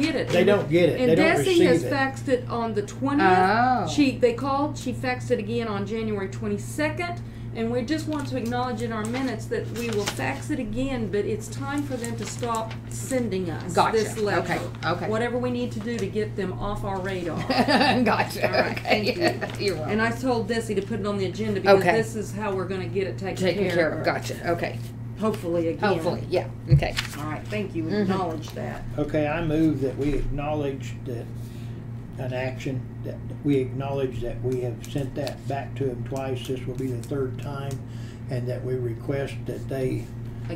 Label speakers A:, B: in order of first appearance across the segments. A: get it.
B: They
A: And-
B: don't get it.
A: And
B: They don't
A: Desi has
B: receive it.
A: faxed it on the
C: Oh.
A: twentieth. She, they called, she faxed it again on January twenty-second. And we just want to acknowledge in our minutes that we will fax it again, but it's time for them to stop sending us
C: Gotcha.
A: this letter.
C: Okay, okay.
A: Whatever we need to do to get them off our radar.
C: gotcha.
A: All right,
C: okay.
A: thank
C: You're welcome.
A: And I told Desi to put it on the agenda because
C: Okay.
A: this is how we're gonna get it taken care of.
C: Taken care of. Gotcha. Okay.
A: Hopefully again.
C: Hopefully. Yeah. Okay.
A: All right, thank you,
C: Mhm.
A: acknowledge that.
B: Okay, I move that we acknowledge that an action, that we acknowledge that we have sent that back to them twice. This will be the third time. And that we request that they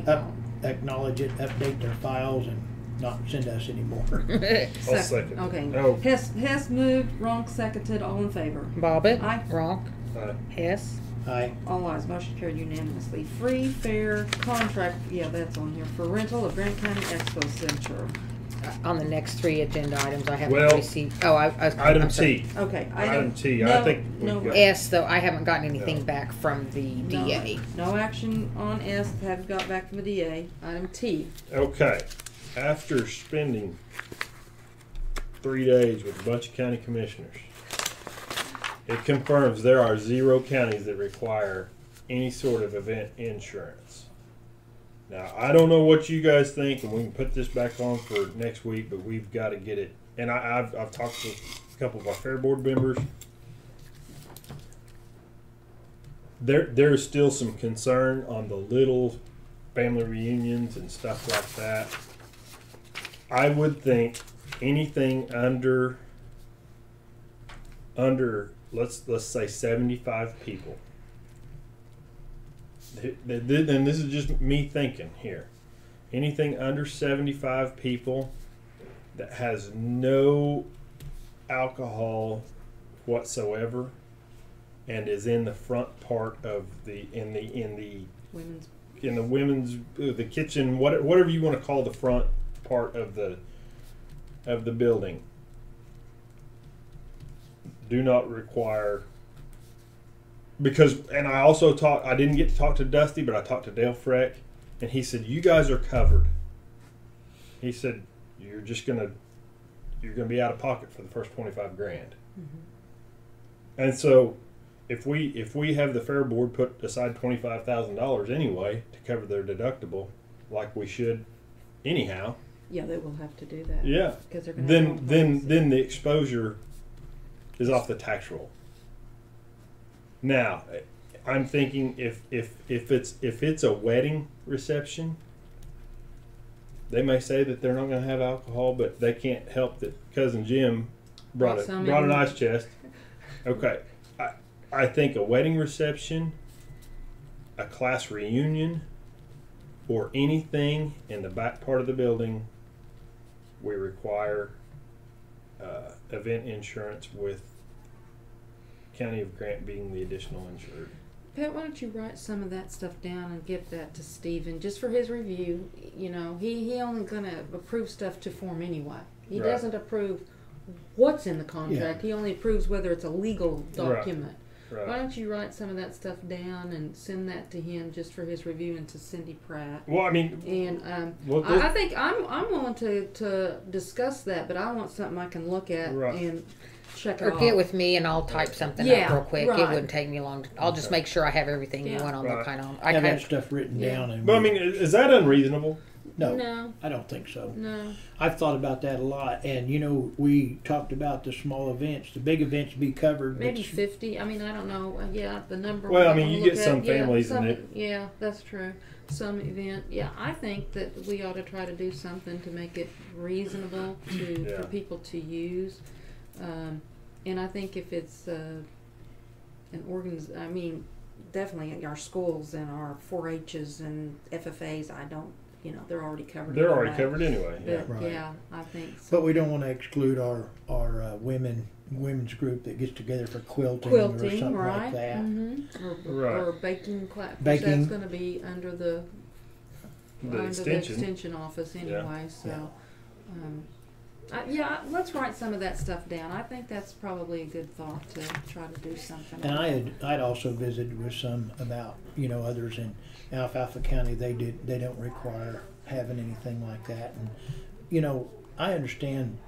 B: up- acknowledge it, update their files and not send us anymore.
D: I'll second. Oh.
A: Okay. Hess, Hess moved, Ronk seconded, all in favor.
C: Bobbit.
A: Aye.
C: Ronk.
D: Aye.
C: Hess.
B: Aye.
A: All ayes, motion carried unanimously. Free, fair contract, yeah, that's on here, for rental of Grant County Expo Center.
C: Uh, On the next three agenda items, I haven't
D: Well,
C: received. Oh, I. I
D: Item
C: I'm sorry.
D: T.
A: Okay.
D: Item T, I
A: no,
D: think we've
A: No,
D: got-
C: S though I haven't gotten anything
D: No.
C: back from the
A: no,
C: DA.
A: No action on S, have got back from the DA. Item T,
D: Okay, after spending three days with a bunch of county commissioners, it confirms there are zero counties that require any sort of event insurance. Now, I don't know what you guys think, and we can put this back on for next week, but we've got to get it. And I, I've, I've talked to a couple of our fair board members. There, there is still some concern on the little family reunions and stuff like that. I would think anything under under let's let's say 75 people. Th- th- th- And this is just me thinking here. Anything under 75 people that has no alcohol whatsoever and is in the front part of the in the in the
A: women's,
D: in the women's uh, the kitchen what, whatever you want to call the front part of the of the building do not require because and I also talked I didn't get to talk to Dusty but I talked to Dale Freck and he said you guys are covered he said you're just gonna you're gonna be out of pocket for the first 25 grand and so if we if we have the fair board put aside twenty five thousand dollars anyway to cover their deductible, like we should, anyhow.
A: yeah, they will have to do that.
D: Yeah.
A: Cause they're gonna. have
D: Then
A: all
D: then
A: policies.
D: then the exposure is off the tax roll. Now, I'm thinking if if if it's if it's a wedding reception, they may say that they're not going to have alcohol, but they can't help that cousin Jim brought
A: Brought
D: it
A: some
D: brought an
A: in.
D: ice chest. Okay, I I think a wedding reception, a class reunion, or anything in the back part of the building, we require uh, event insurance with County of Grant being the additional insured.
A: Pat, why don't you write some of that stuff down and give that to Stephen just for his review? You know, he he only gonna approve stuff to form anyway. He
D: Right.
A: doesn't approve what's in the contract. He only approves whether it's a legal
D: Right.
A: document. Why
D: Right.
A: don't you write some of that stuff down and send that to him just for his review and to Cindy Pratt?
D: Well, I mean,
A: And um,
D: Well, this-
A: I, I think I'm I'm willing to, to discuss that, but I want something I can look at
D: Right.
A: and check it
C: Or
A: off.
C: get with me and I'll type something up
A: Yeah,
C: real quick. It
A: right.
C: wouldn't take me long. To, I'll just make sure I have everything you
A: Yeah.
C: want on the
D: Right.
C: kind of. I
B: Have that
C: kind
B: stuff written
A: Yeah.
B: down and.
D: but I mean, i- is that unreasonable?
B: No,
A: no,
B: I don't think so.
A: no.
B: I've thought about that a lot and you know, we talked about the small events, the big events be covered. but
A: Maybe
B: s-
A: fifty. I mean, I don't know. Uh, Yeah, the number.
D: Well, I
A: we're
D: mean,
A: gonna
D: you
A: look
D: get
A: at,
D: some
A: yeah,
D: families in
A: some-
D: it.
A: Yeah, that's true. Some event. Yeah, I think that we ought to try to do something to make it reasonable to
D: Yeah.
A: for people to use. Um, and I think if it's uh, an organs, I mean, definitely our schools and our 4-H's and FFAs. I don't, you know, they're already covered.
D: They're already
A: anyway.
D: covered anyway. Yeah.
A: But
B: Right.
A: yeah, I think so.
B: But we don't wanna exclude our, our uh, women, women's group that gets together for quilting or
A: Quilting,
B: something
A: right?
B: like that.
A: Mm-hmm. Or,
D: Right.
A: or baking class.
B: Baking.
A: That's going to be under the
D: The
A: under
D: extension.
A: the extension office
D: Yeah.
A: anyway, so.
B: Yeah.
A: Um, I, yeah, I- let's write some of that stuff down. I think that's probably a good thought to try to do something.
B: And I had, I'd also visited with some about, you know, others in Alfalfa County, they did, they don't require having anything like that. And, you know, I understand